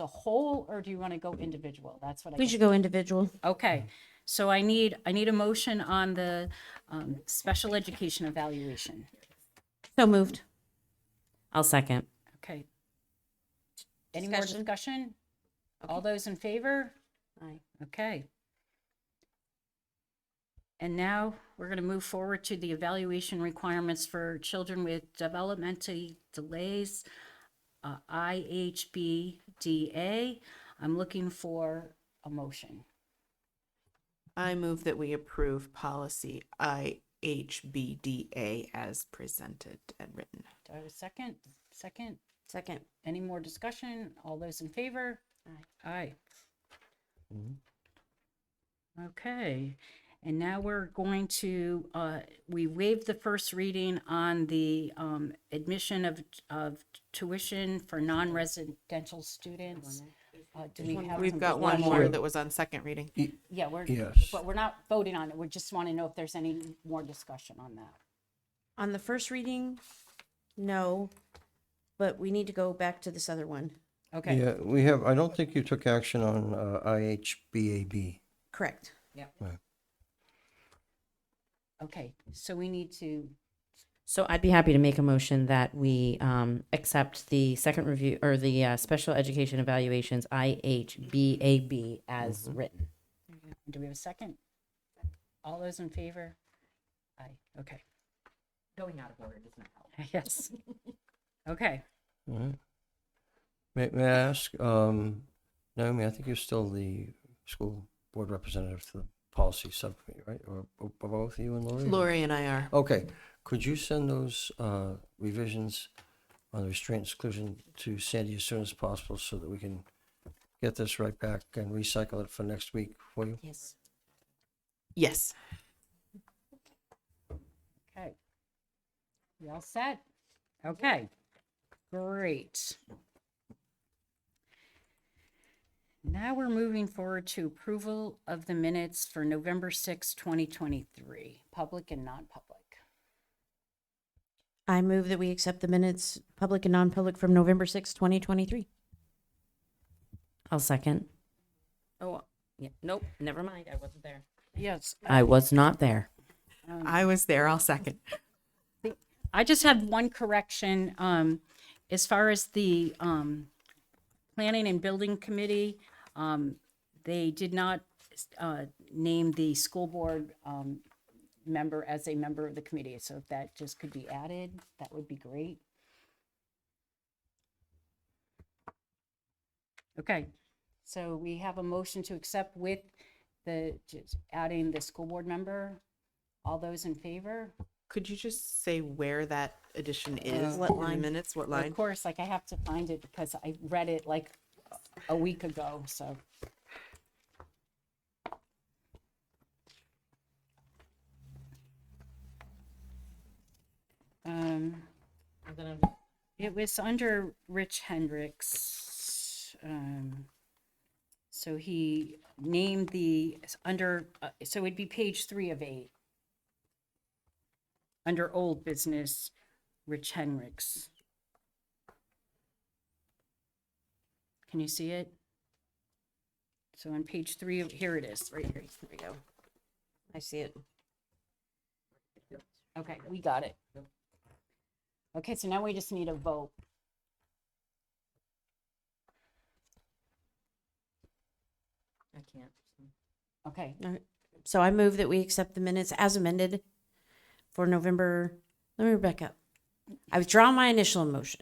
the whole, or do you want to go individual? That's what I. We should go individual. Okay, so I need, I need a motion on the um, special education evaluation. So moved. I'll second. Okay. Any more Discussion? discussion? All those in favor? Aye. Okay. And now we're going to move forward to the evaluation requirements for children with developmental delays, uh, IHBDA. I'm looking for a motion. I move that we approve policy IHBDA as presented and written. Do I have a second? Second? Second. Any more discussion? All those in favor? Aye. Aye. Mm-hmm. Okay, and now we're going to, uh, we waived the first reading on the, um, admission of, of tuition for non-residential students. Uh, do we have? We've some got one discussion? more that was on second reading. Yeah, we're, Yes. but we're not voting on it. We just want to know if there's any more discussion on that. On the first reading, no, but we need to go back to this other one. Okay, Yeah, we have, I don't think you took action on uh, IHBAB. Correct. okay, so we need to, So I'd be happy to make a motion that we um, accept the second review or the uh, special education evaluations IHBAB as written. do we have a second? All those in favor? Aye, okay. Going out of order does not help. Yes. Okay. All right. May, may I ask, um, Naomi, I think you're still the school board representative to the policy subcommittee, right? Or or both you and Lori? or- Lori and I are. Okay, could you send those uh, revisions on the restraint exclusion to Sandy as soon as possible so that we can get this right back and recycle it for next week for you? Yes. Yes. Okay. We all set? Okay. Great. Now we're moving forward to approval of the minutes for November sixth, twenty 2023, public and non-public. I move that we accept the minutes, public and non-public, from November sixth, twenty 2023. I'll second. Oh, yeah, nope, never mind. I wasn't there. Yes. I was not there. I was there. I'll second. I just have one correction, um, as far as the, um, Planning and Building Committee, um, they did not, uh, name the school board, um, member as a member of the committee, so if that just could be added, that would be great. Okay, so we have a motion to accept with the, just adding the school board member. All those in favor? Could you just say where that addition is? what in the line? Minutes, what Well, line? Of course, like I have to find it because I read it like a week ago, so. Um, it was under Rich Hendricks. Um, so he named the, it's under, uh, so it'd be page three of eight. Under old business, Rich Hendricks. Can you see it? So on page three, of here it is, right here. Here we go. I see it. Okay, we got it. Okay, so now we just need a vote. I can't. Okay, So I move that we accept the minutes as amended for November, let me back up. I withdraw my initial motion.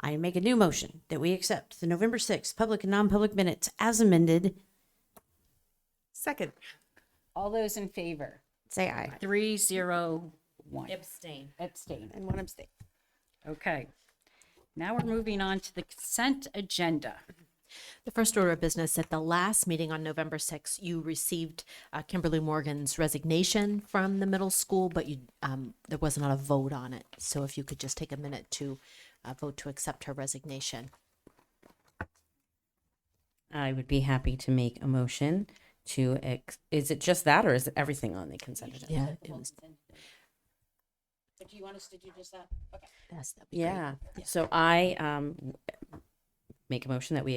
I make a new motion that we accept the November 6th public and non-public minutes as amended. Second. all those in favor? Say aye. Three, zero, one. Abstain. Abstain. And one abstain. Okay. Now we're moving on to the consent agenda. The first order of business at the last meeting on November 6th, you received uh, Kimberly Morgan's resignation from the middle school, but you, um, there was not a vote on it. So if you could just take a minute to uh, vote to accept her resignation. I would be happy to make a motion to, ex- is it just that or is it everything on the consent agenda? Yeah, it was, But do you want us to do just that? yes, that'd be great. Yeah, so I um, make a motion that we